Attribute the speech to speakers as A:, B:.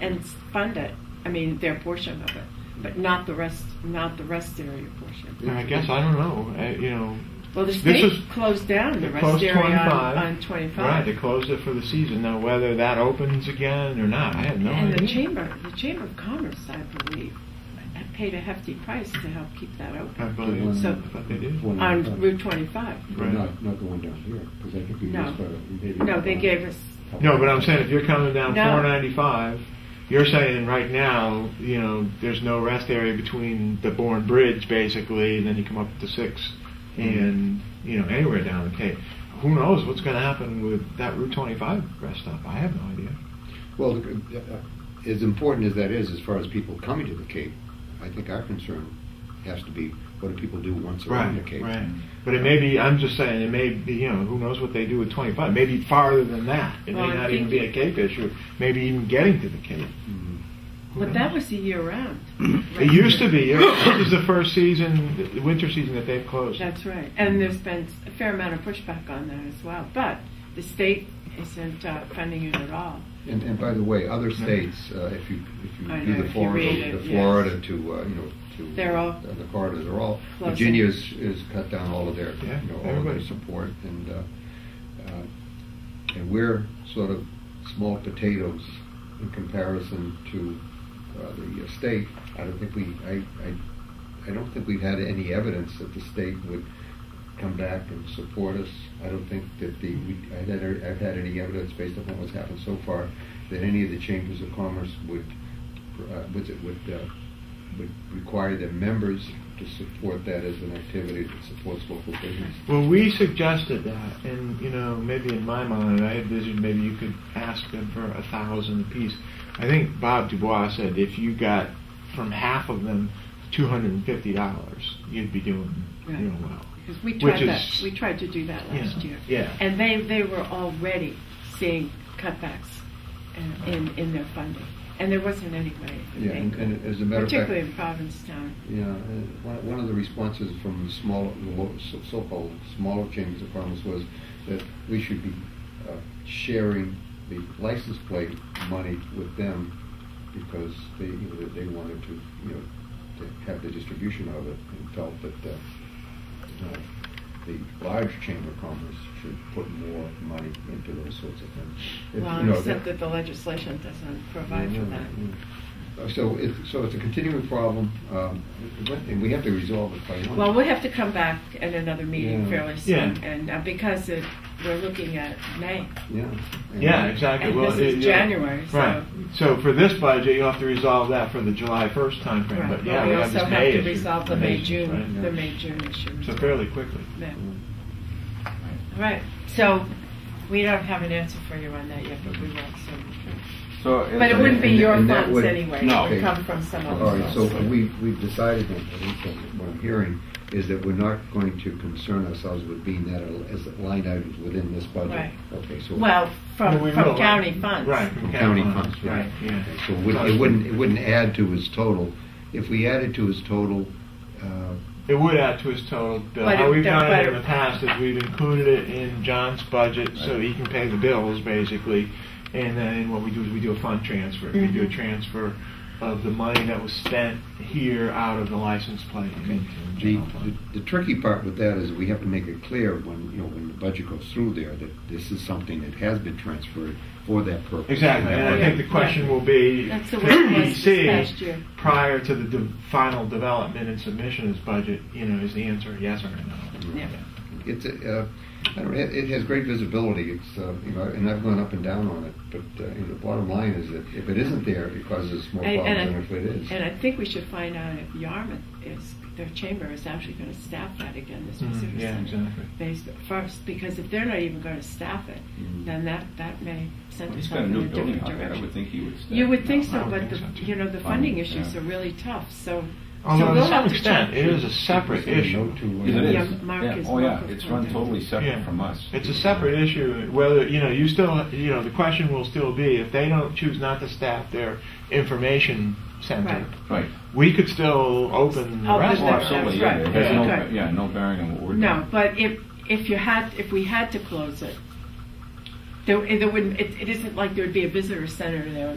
A: and fund it. I mean, their portion of it, but not the rest, not the rest area portion.
B: I guess I don't know. I, you know,
A: Well, the
B: This
A: state
B: is-
A: closed down the
B: they
A: rest
B: closed
A: area on,
B: 25.
A: on 25.
B: right? They closed it for the season. Now whether that opens again or not, I have no
A: and the
B: idea.
A: chamber, the chamber of commerce, I believe, paid a hefty price to help keep that open
B: I believe.
A: So-
B: I thought they did.
C: One
A: on
C: at a time.
A: Route 25.
C: But Not, not the one down here, because I think we
A: No.
C: used, uh, maybe.
A: No, they gave us.
B: No, but I'm saying if you're coming down
A: No.
B: 495, you're saying right now, you know, there's no rest area between the Bourne Bridge basically, and then you come up to six, and you know anywhere down the Cape. Who knows what's going to happen with that Route 25 rest stop? I have no idea.
C: Well, look, uh, uh, as important as that is, as far as people coming to the Cape, I think our concern has to be, what do people do once around the Cape?
B: right. But it may be. I'm just saying it may be. You know, who knows what they do with 25? Maybe farther than that. It
A: Well, I
B: may not even
A: think-
B: be a Cape issue. Maybe even getting to the Cape.
C: Mhm.
A: But that was the year round.
B: It used to be. This is the first season, the winter season that they've closed.
A: That's right. And there's been a fair amount of pushback on that as well. But the state isn't uh, funding it at all.
C: And, and by the way, other states, uh, if you, if
A: I
C: you do
A: know,
C: the
A: if you read
C: Florida,
A: it,
C: the
A: yes.
C: Florida to, uh, you know, to.
A: They're all
C: uh, The corridors are all,
A: closing.
C: Virginia's is cut down all of their,
B: Yeah,
C: you know, all of their
B: everybody.
C: support and, uh, uh, and we're sort of small potatoes in comparison to uh, the uh, state. I don't think we, I, I, I don't think we've had any evidence that the state would come back and support us. I don't think that the, we, I had, I've had any evidence based upon what's happened so far that any of the chambers of commerce would, uh, would, would, uh, would require their members to support that as an activity that supports local business.
B: Well, we suggested that, and you know, maybe in my mind, I envisioned maybe you could ask them for a thousand apiece. I think Bob Dubois said if you got from half of them two hundred and fifty dollars, you'd be doing
A: Right.
B: you know well.
A: Because we
B: Which
A: tried
B: is-
A: that. We tried to do that last
B: Yeah,
A: year.
B: yeah.
A: And they, they were already seeing cutbacks uh, in, in their funding. And there wasn't any way. that
C: Yeah,
A: they
C: and-
A: could-
C: and as a matter of fact-
A: Particularly in Provincetown.
C: Yeah, and one, one of the responses from the smaller, the lo- so- so-called smaller chambers of commerce was that we should be uh, sharing the license plate money with them because they, you know, they wanted to, you know, to have the distribution of it and felt that, uh, uh, the large chamber of commerce should put more money into those sorts of things. If- you
A: Well,
C: know,
A: except that the legislation doesn't provide for that.
C: uh, So it, so it's a continuing problem, um, and we have to resolve it by one.
A: Well, we'll have to come back at another meeting
C: Yeah.
A: fairly soon,
B: Yeah.
A: and uh, because it, we're looking at May.
C: Yeah.
B: Yeah, exactly.
A: Mm-hmm. And
B: well,
A: this is
B: it-
A: January, so-
B: Right. So for this budget, you'll have to resolve that for the July first timeframe.
A: Right.
B: But yeah,
A: we
B: have
A: also
B: this
A: have
B: May
A: to
B: issue.
A: resolve the May,
B: May,
A: June,
B: right.
A: the May, June issue.
B: So fairly quickly.
A: Yeah.
C: Mm.
A: All right, so we don't have an answer for you on that yet, but we will soon.
D: So,
A: But it wouldn't be
C: And-
A: your
C: and that
A: funds
C: would-
A: anyway,
D: no.
A: it would come from some other.
C: All right, so
A: source.
C: we, we've decided, then, at least that's what I'm hearing, is that we're not going to concern ourselves with being that as line items within this budget.
A: Right.
C: Okay, so.
A: Well, from,
B: Well, we
A: from
B: will.
A: county funds.
B: Right.
C: From county funds, right.
B: Yeah.
C: So it wouldn't- it wouldn't, it wouldn't add to his total. If we added to his total, uh,
B: It would add to his total bill.
A: But
B: How
A: it-
B: we've
A: that-
B: done it in
A: but-
B: the past is we've included it in John's budget so he can pay the bills, basically. And then what we do is we do a fund transfer. We
A: Mm-hmm.
B: do a transfer of the money that was spent here out of the license plate into the
C: The,
B: general fund.
C: the tricky part with that is we have to make it clear when, you know, when the budget goes through there, that this is something that has been transferred for that purpose.
B: Exactly, and I think the question will be,
A: That's the way it was this past year.
B: DEC, prior to the de- final development and submission of his budget, you know, is the answer yes or no?
A: Yeah.
C: It's, a, uh, I don't know, it it has great visibility, it's, uh, you know, and I've gone up and down on it, but, uh, you know, the bottom line is that if it isn't there, it causes more
A: And-
C: problems than
A: and
C: if it is.
A: And I think we should find out if Yarmouth is, their chamber is actually going to staff that again this
B: Mhm,
A: visitor
B: yeah,
A: center.
B: exactly.
A: Based first, because if they're not even going to staff it,
C: Mhm.
A: then that, that may send
D: he's
A: us
D: got a
A: off in
D: new
A: a
D: building
A: different
D: out there, I would
A: direction.
D: think he would stay.
A: You would think
B: I
A: so,
B: would
A: but
B: think
A: the,
B: so, too.
A: you know, the funding
D: Funding,
A: issues
D: yeah.
A: are really tough, so. so
B: Although
A: we'll
B: Oh, to some
A: have
B: extent,
A: check.
B: it is a separate issue.
C: No to, uh,
D: It is.
A: Yeah, Mark
D: Yeah.
A: is-
D: Oh, yeah,
A: Mark is
D: it's run
A: funding.
D: totally separate
B: Yeah.
D: from us.
B: It's a separate issue, whether, you know, you still, you know, the question will still be, if they don't choose not to staff their information center,
A: Right.
D: Right.
B: we could still open the
A: Open
B: restaurant.
D: Oh, absolutely, yeah,
A: Right.
D: it has no,
A: Okay.
D: yeah, no bearing on what we're doing.
A: No, but if, if you had, if we had to close it, there, there wouldn't, it, it isn't like there'd be a visitor center there